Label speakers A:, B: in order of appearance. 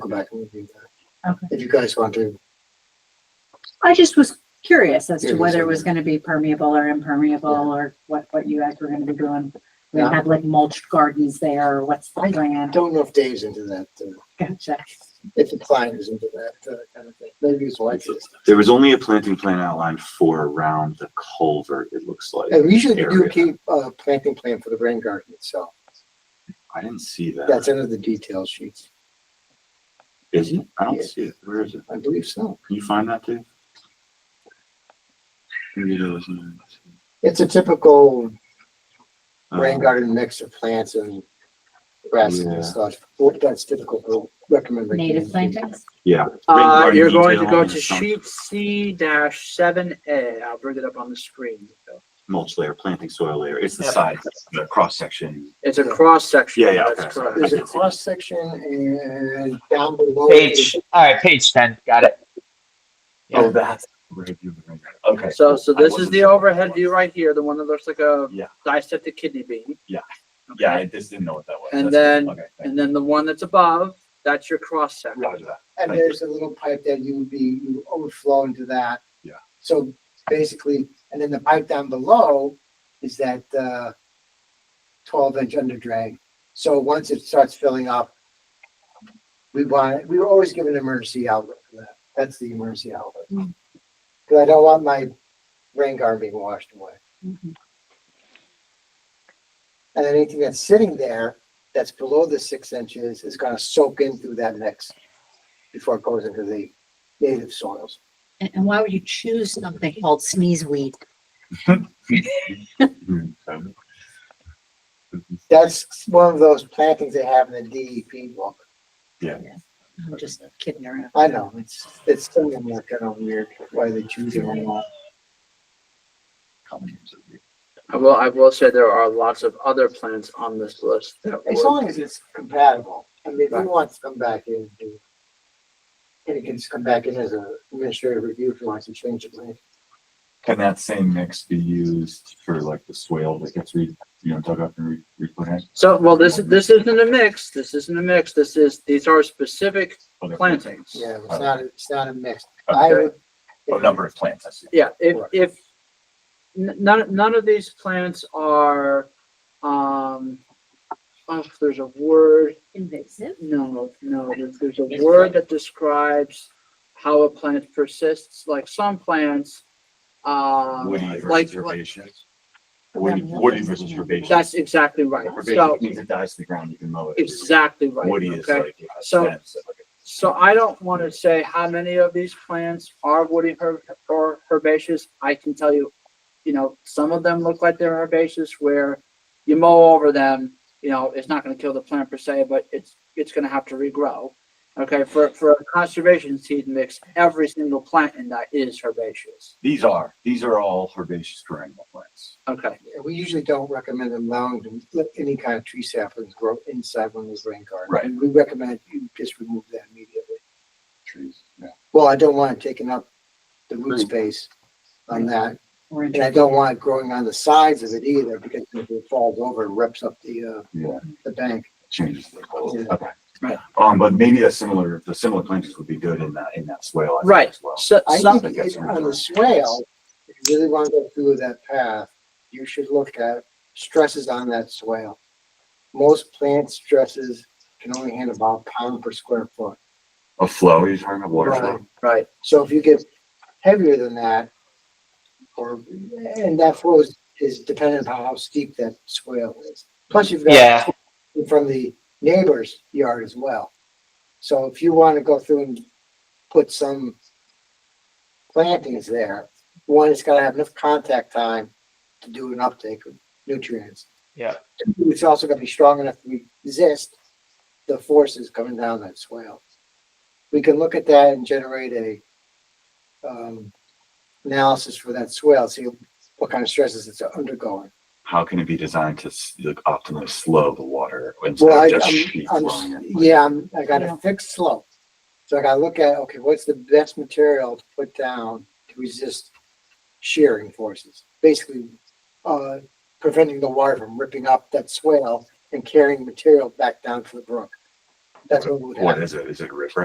A: back and review that.
B: Okay.
A: If you guys want to,
B: I just was curious as
A: Yeah,
B: to whether it
A: so-
B: was gonna be permeable or impermeable or what, what you guys were gonna be doing. We
A: Yeah.
B: have like mulched gardens there, or what's the
A: I
B: plan?
A: don't know if Dave's into that, uh,
B: Gotcha.
A: if the client is into that uh, kind of thing. Maybe his wife is.
C: There was only a planting plan outlined for around the culvert, it looks like.
D: Oh,
A: And we should do a
C: Area.
A: key, uh, planting plan for the rain garden itself.
C: I didn't see
A: That's
C: that.
A: under the detail sheets.
C: Is it? I
A: Yeah.
C: don't see it. Where is it?
A: I believe so.
C: Can you find that, Dave? Maybe there was no-
A: It's a typical
E: Uh-huh.
A: rain
C: Um,
A: garden mix of plants and grasses
C: Yeah.
A: and such. What that's typical for recommended.
B: Native plantings?
C: Yeah.
D: Uh,
C: Rain garden
D: you're going to
C: detail
D: go
C: and
D: to
C: some
D: sheet C dash seven A. I'll bring it up on the screen.
C: Mulch layer, planting soil layer. It's the
D: Yeah.
C: side, the cross section.
D: It's a cross section.
C: Yeah, yeah,
D: That's
C: okay.
D: correct.
A: There's a cross section and down below.
F: Page, all right, page ten, got it.
C: Oh,
F: Yeah.
C: that's. Okay.
D: So, so
C: I
D: this is
C: wasn't
D: the
C: sure.
D: overhead view right here, the one that looks like a
C: Yeah.
D: dissected kidney bean.
C: Yeah. Yeah, I
D: Okay,
C: just didn't know what that was.
D: And
C: That's
D: then-
C: good. Okay, thank
D: and then the one that's above, that's your cross
C: you.
D: section.
C: Roger that.
A: And there's a little pipe that you would be, you would overflow into that.
C: Yeah.
A: So basically, and then the pipe down below is that, uh, twelve inch under drain. So once it starts filling up, we want, we were always given an emergency outlet for that. That's the emergency outlet.
B: Mm.
A: Cause I don't want my rain garden being washed away.
B: Mhm.
A: And then anything that's sitting there that's below the six inches is gonna soak in through that mix before it goes into the native soils.
B: And, and why would you choose something called sneeze weed?
C: Mhm. So-
A: That's one of those plantings they have in the DEP book.
B: I'm just kidding around.
A: I know, it's, it's something that's kind of weird why they choose it anymore.
D: I will, I will say there are lots of other plants on this list that
A: As
D: would,
A: long as it's compatible. I mean, if you want to come back in, and and it can just come back in as a administrative review if you want to change it later.
E: Can that same mix be used for like the swale that gets re, you know, dug up and re, replanted?
D: so, well, this, this isn't a mix, this isn't a mix, this is, these are specific plantings.
A: Yeah, it's not, it's not a mix. I
E: Okay,
A: would.
E: a number of plants, I see.
D: Yeah, if,
A: Correct.
D: if, n- none, none of these plants are, um, oh, there's a word,
B: Invasive?
D: no, no, there's, there's a word that describes how a plant persists, like some plants, um,
E: Woody
D: like-
E: versus herbaceous. Woody,
B: Woody-
E: woody versus herbaceous.
D: that's exactly right, so,
E: Herbaceous means it dies to the ground, you can mow it.
D: exactly right,
E: Woody is
D: okay?
E: like. a
D: So-
E: fence, like a-
D: So I don't want to say how many of these plants are woody herb or herbaceous. I can tell you, you know, some of them look like they're herbaceous where you mow over them, you know, it's not going to kill the plant per se, but it's, it's going to have to regrow. Okay, for, for a conservation seed mix, every single plant in that is herbaceous.
E: These are, these are all herbaceous perennial plants.
D: Okay,
A: We usually don't recommend allowing them- let any kind of tree saplings grow inside one of those rain gardens.
E: Right.
A: We recommend you just remove that immediately.
E: Trees, yeah.
A: Well, I don't want it taking up the root space on that,
B: Or
A: and I don't want it growing on the sides of it either, because if it falls over, it rips up the,
E: Yeah.
A: uh, the bank.
E: changes the goal.
A: Yeah.
E: Okay.
D: Right.
E: Um, but maybe a similar, the similar plantings would be good in that, in that swale. I think,
D: right.
E: as well.
D: So,
A: I
D: some,
A: think it's on the swale, if you really want to go through that path, you should look at stresses on that swale. Most plant stresses can only handle about a pound per square foot.
E: A flow, you're talking about water
A: Right.
E: flow?
D: right,
A: So if you get heavier than that, or, and that flow is, is dependent upon how steep that swale is. Plus you've got.
F: Yeah,
A: from the neighbor's yard as well. So if you want to go through and put some plantings there, one, it's gotta have enough contact time to do an uptake of nutrients.
F: Yeah.
A: Two, It's also gonna be strong enough to resist the forces coming down that swale. We can look at that and generate a um, analysis for that swale, see what kind of stresses it's undergoing.
E: how can it be designed to s- like, optimally slow the water instead
A: Well, I,
E: of just sheet
A: I'm,
E: flowing
A: I'm,
E: it? Like,
A: yeah, I'm, I got
B: Yeah.
A: a fixed slope. So I gotta look at, okay, what's the best material to put down to resist shearing forces? Basically, uh, preventing the water from ripping up that swale and carrying material back down to the brook. That's what would happen.
E: What is it? Is it a riprap?